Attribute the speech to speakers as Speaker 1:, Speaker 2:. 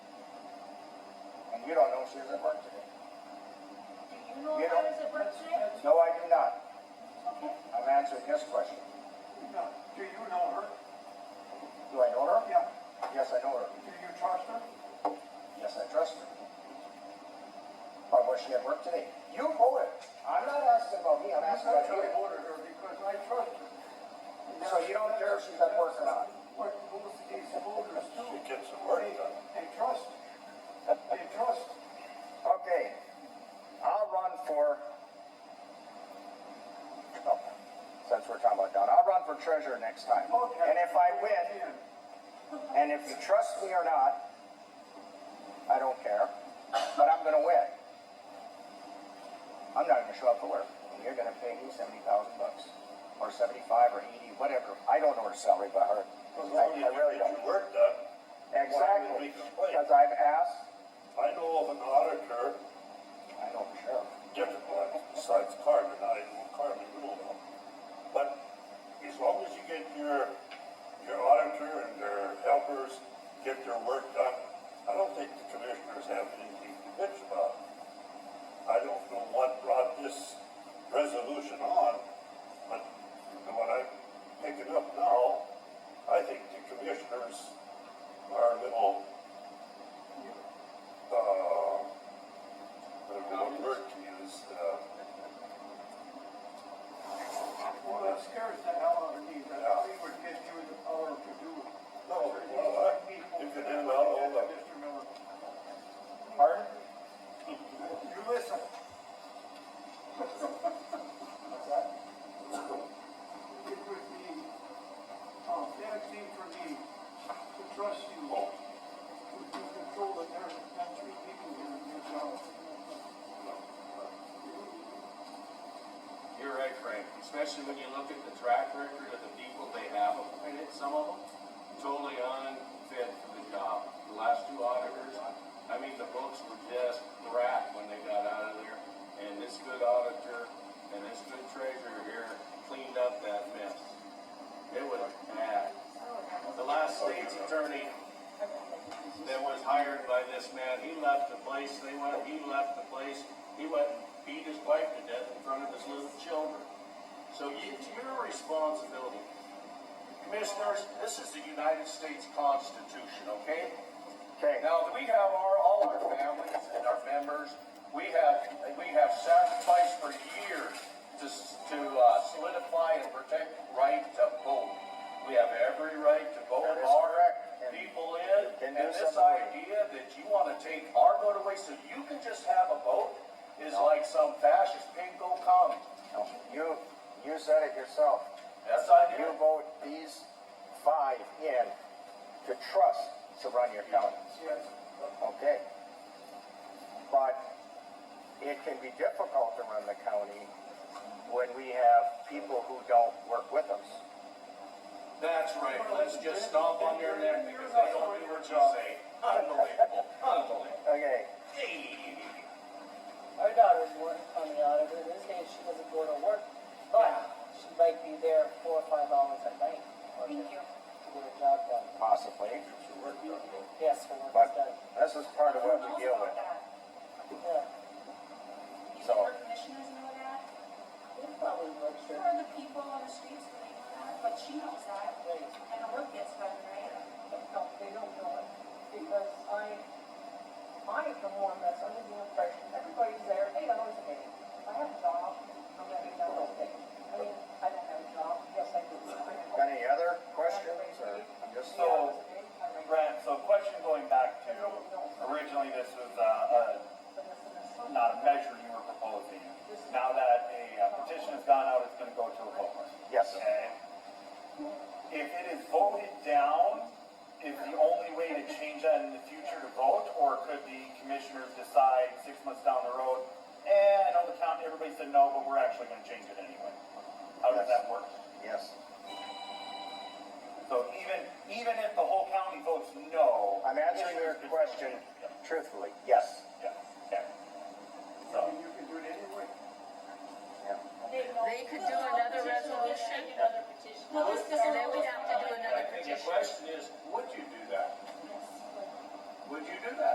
Speaker 1: you don't know she was at work today.
Speaker 2: Do you know if I was at work today?
Speaker 1: No, I do not.
Speaker 2: Okay.
Speaker 1: I'm answering his question.
Speaker 3: No. Do you know her?
Speaker 1: Do I know her?
Speaker 3: Yeah.
Speaker 1: Yes, I know her.
Speaker 3: Do you trust her?
Speaker 1: Yes, I trust her. Why was she at work today? You voted. I'm not asking about me, I'm
Speaker 3: I
Speaker 1: asking about
Speaker 3: actually
Speaker 1: you.
Speaker 3: ordered her because I trust her.
Speaker 1: So you don't care if she's at work or not?
Speaker 3: What most of these voters do.
Speaker 4: She gets the work
Speaker 3: They-
Speaker 4: done.
Speaker 3: They trust. They trust.
Speaker 1: Okay, I'll run for, oh, since we're talking about Don, I'll run for treasurer next time.
Speaker 3: Okay.
Speaker 1: And if I win,
Speaker 3: Yeah.
Speaker 1: and if you trust me or not, I don't care, but I'm gonna win. I'm not gonna show up for work, and you're gonna pay me seventy thousand bucks, or seventy-five, or eighty, whatever, I don't know her salary by heart. I
Speaker 4: As long
Speaker 1: I
Speaker 4: as you
Speaker 1: really
Speaker 4: get
Speaker 1: don't.
Speaker 4: your work done. Why would we
Speaker 1: Exactly,
Speaker 4: complain?
Speaker 1: because I've asked,
Speaker 4: I know of an auditor,
Speaker 1: I know for sure.
Speaker 4: different one, besides Carmen, I, Carmen, you don't know. But as long as you get your, your auditor and their helpers get their work done, I don't think the commissioners have anything to bitch about. I don't know what brought this resolution on, but from what I'm picking up now, I think the commissioners are a little, uh, I don't know what word to use, uh,
Speaker 3: Well, that scares the hell out of me, that we would get you the power to do it.
Speaker 4: No, well, I- you can end all of them.
Speaker 3: Mr. Miller,
Speaker 1: Pardon?
Speaker 3: you listen. It would be, uh, bad thing for me to trust you, to to control the narrative, not three people here in your job.
Speaker 5: You're right, Frank, especially when you look at the track record of the people they have appointed, some of them totally unfit for the job. The last two auditors, I mean, the books were just crap when they got out of there. And this good auditor and this good treasurer here cleaned up that mess. It was bad. The last state's attorney that was hired by this man, he left the place, they went, he left the place, he went and beat his wife to death in front of his little children. So you- it's your responsibility. Commissioners, this is the United States Constitution, okay?
Speaker 1: Okay.
Speaker 5: Now, we have our, all our families and our members, we have, we have sacrificed for years to, s- to uh, solidify and protect the right to vote. We have every right to vote
Speaker 1: That is
Speaker 5: our
Speaker 1: correct. And-
Speaker 5: people in,
Speaker 1: Can do
Speaker 5: and this
Speaker 1: something.
Speaker 5: idea that you want to take our vote away so you can just have a vote is like some fascist pinko commie.
Speaker 1: No, You, you said it yourself.
Speaker 5: Yes, I do.
Speaker 1: You vote these five in to trust to run your county,
Speaker 3: Yes.
Speaker 1: okay? But it can be difficult to run the county when we have people who don't work with us.
Speaker 5: That's right, let's just stomp on their neck because they don't do what you say. Unbelievable, unbelievable.
Speaker 1: Okay,
Speaker 5: Hey.
Speaker 6: Our daughters work on the auditor, this day she doesn't go to work, but she might be there four or five hours at night. Thank you. To get her job done.
Speaker 1: possibly,
Speaker 6: Yes, her work is
Speaker 1: but
Speaker 6: done.
Speaker 1: this is part of what we deal with.
Speaker 6: Yeah,
Speaker 2: You
Speaker 1: So-
Speaker 2: think our commissioners know that?
Speaker 6: we probably work
Speaker 2: Who
Speaker 6: sure.
Speaker 2: are the people on the streets that they know that? But she knows that,
Speaker 6: Right.
Speaker 2: and the work gets done, right?
Speaker 6: No, they don't know it, because I, I am the one that's under the impression, everybody's there, hey, I was okay. I have a job, I'm gonna be done okay. I mean, I don't have a job, yes, I do.
Speaker 1: Got any other questions or I'm just?
Speaker 6: Yeah, I was okay. I'm right.
Speaker 7: Brad, so question going back to, originally this was, uh,
Speaker 6: But this is a-
Speaker 7: uh, not a measure you were proposing. Now that a uh, petition has gone out, it's gonna go to a vote.
Speaker 1: Yes.
Speaker 7: Okay? If it is voted down, is the only way to change that in the future to vote? Or could the commissioners decide six months down the road, eh, I know the county, everybody said no, but we're actually gonna change it anyway? How does that work?
Speaker 1: Yes.
Speaker 7: So even, even if the whole county votes no.
Speaker 1: I'm answering your
Speaker 7: commissioners could still
Speaker 1: question
Speaker 7: change it.
Speaker 1: truthfully. Yes.
Speaker 7: Yeah, yeah.
Speaker 3: I mean, you can do it anyway.
Speaker 1: Yeah.
Speaker 8: They could do another resolution, and then we'd have to do
Speaker 5: I
Speaker 8: another
Speaker 5: think the
Speaker 8: petition.
Speaker 5: question is, would you do that? Would you do that?